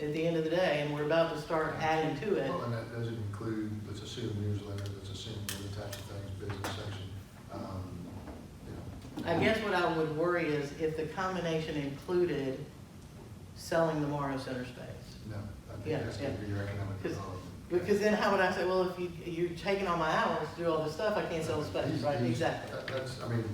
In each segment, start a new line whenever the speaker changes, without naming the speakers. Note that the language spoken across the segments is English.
at the end of the day, and we're about to start adding to it.
Well, and that doesn't include, let's assume newsletter, let's assume other types of things, business section. um, you know.
I guess what I would worry is if the combination included selling the Morrow Center space.
No, I
Yeah,
think that's gonna be your economic
Because-
development.
Because then how would I say, well, if you, you're taking all my hours to do all this stuff, I can't sell the space,
He's-
right,
he's-
exactly.
that- That's, I mean,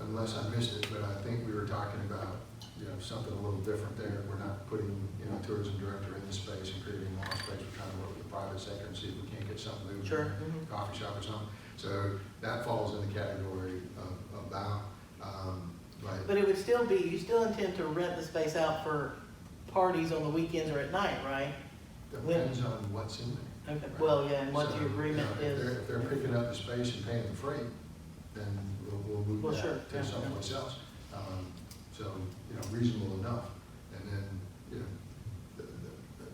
unless I missed it, but I think we were talking about, you know, something a little different there. We're not putting, you know, tourism director in the space and creating more space. We're trying to work with the private sector and see if we can't get something moving.
Sure, mhm.
Coffee shop or something. So that falls in the category of, of bound. Um, but
But it would still be, you still intend to rent the space out for parties on the weekends or at night, right?
depends on what's in there.
Okay, well, yeah, and what
So,
your agreement
you know, if
is.
they're- If they're picking up the space and paying the freight, then we'll, we'll
Well,
move
sure,
that
yeah,
to someplace else. Um, So, you know, reasonable enough, and then, you know, the-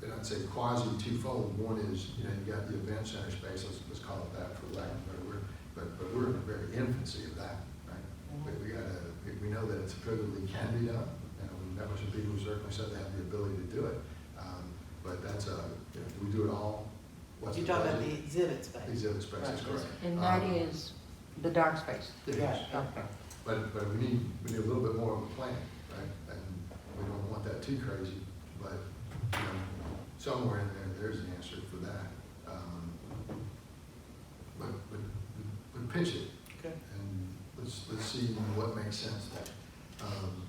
the- and I'd say quasi twofold. One is, you know, you got the event center space, let's, let's call it that for lack of a better word, but, but we're in the very infancy of that, right?
Mhm.
We, we gotta, we- we know that it's probably can be done, and that much of people certainly said they have the ability to do it. Um, But that's a, you know, do we do it all? What's
You're
the
talking about
budget?
the exhibit space.
These other spaces,
Right.
correct.
And that
Um,
is the dark space.
it is.
Right.
Okay.
But, but we need, we need a little bit more of a plan, right? And we don't want that too crazy, but, you know, somewhere in there, there's an answer for that. Um, But, but, but pitch it,
Okay.
and let's, let's see what makes sense there. Um,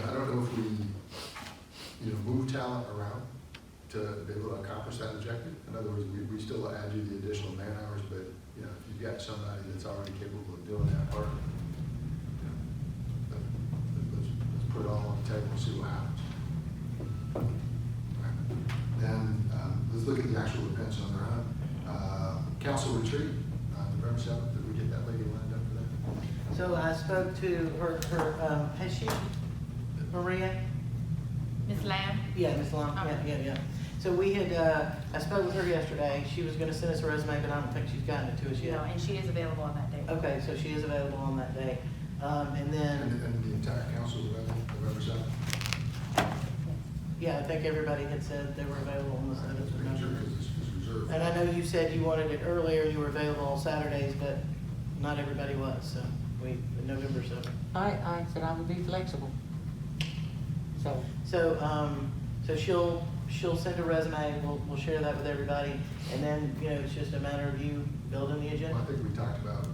And I don't know if we, you know, move talent around to be able to accomplish that objective. In other words, we, we still add you the additional man hours, but, you know, if you've got somebody that's already capable of doing that part, you know, let- let- let's, let's put it all on the table and see what happens. Then, um, let's look at the actual events on their own. Uh, Council retreat, uh, November seventh, did we get that lady lined up for that?
So I spoke to her, her, um, has she, Maria?
Ms. Lamb?
Yeah, Ms. Long, yeah,
Okay.
yeah, yeah. So we had, uh, I spoke with her yesterday, she was gonna send us a resume, but I don't think she's gotten it to us
No,
yet.
and she is available on that day.
Okay, so she is available on that day. Um, and
And,
then,
and the entire council, November, November seventh?
yeah, I think everybody had said they were available on the seventh of November.
It's it's reserved.
And I know you said you wanted it earlier, you were available on Saturdays, but not everybody was, so we, November seventh.
I, I said I would be flexible. So,
So, um, so she'll, she'll send a resume, we'll, we'll share that with everybody, and then, you know, it's just a matter of you building the
Well, I
agenda.
think we talked about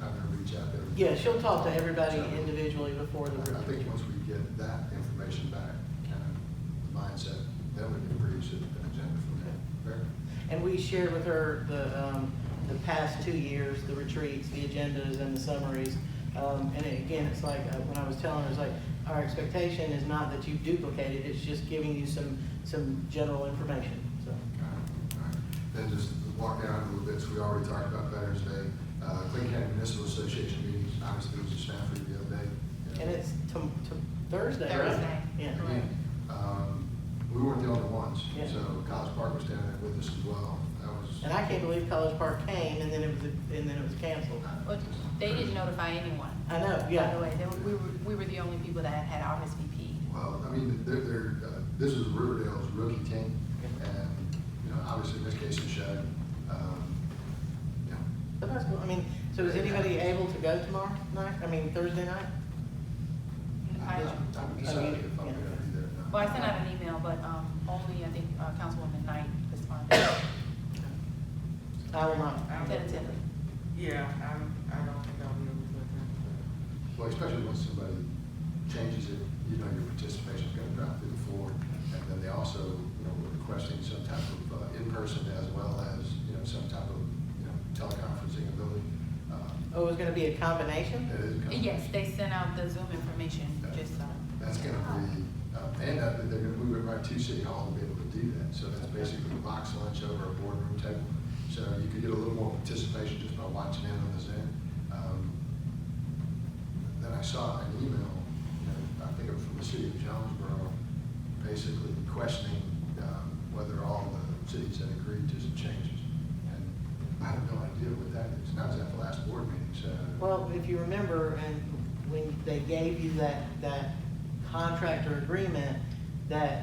having her reach out there.
Yeah, she'll talk to everybody
So,
individually before the
I
group.
think once we get that information back, kind of the mindset, then we can produce an agenda from there. Fair?
And we shared with her the, um, the past two years, the retreats, the agendas and the summaries. Um, and it- again, it's like, uh, when I was telling her, it's like, our expectation is not that you duplicate it, it's just giving you some, some general information, so.
All right, all right. Then just walk down a little bit, so we already talked about Veterans Day, uh, Clay County Municipal Association meetings, obviously there was a staff review the other day. you
And
know.
it's to, to Thursday, right?
Thursday.
Yeah.
Again, um, we weren't the only ones,
Yeah.
so College Park was down there with us as well, that was.
And I can't believe College Park came and then it was, and then it was canceled.
Well, they didn't notify anyone.
I know,
By the
yeah.
way, they were, we were, we were the only people that had RSVP.
Well, I mean, they're, they're, uh, this is Riverdale's rookie team, and, you know, obviously Miss Casey showed, um, you know,
But that's cool. I mean, so is anybody able to go tomorrow night? I mean, Thursday night?
I-
I'm excited if I'm gonna be there or not.
Well, I sent out an email, but, um, only, I think, uh, Councilwoman Knight responded
I will not.
tentatively.
Yeah, I'm, I don't think I'll be able to attend.
Well, especially once somebody changes it, you know, your participation's gonna drop through the floor. And then they also, you know, were requesting some type of uh, in-person as well as, you know, some type of, you know, teleconferencing ability. Um,
Oh, it's gonna be a combination?
That is coming.
Yes, they sent out the Zoom information, just, um,
That's gonna be, uh, and uh, they're gonna move it right to City Hall to be able to do that. So that's basically a box lunch over a boardroom table. So you could get a little more participation just by watching in on the Zoom. Um, Then I saw an email, you know, I think it was from the city of Jonesboro, basically questioning um, whether all the cities had agreed to some changes. And I have no idea what that is. And I was at the last board meeting, so.
Well, if you remember, and when they gave you that, that contractor agreement, that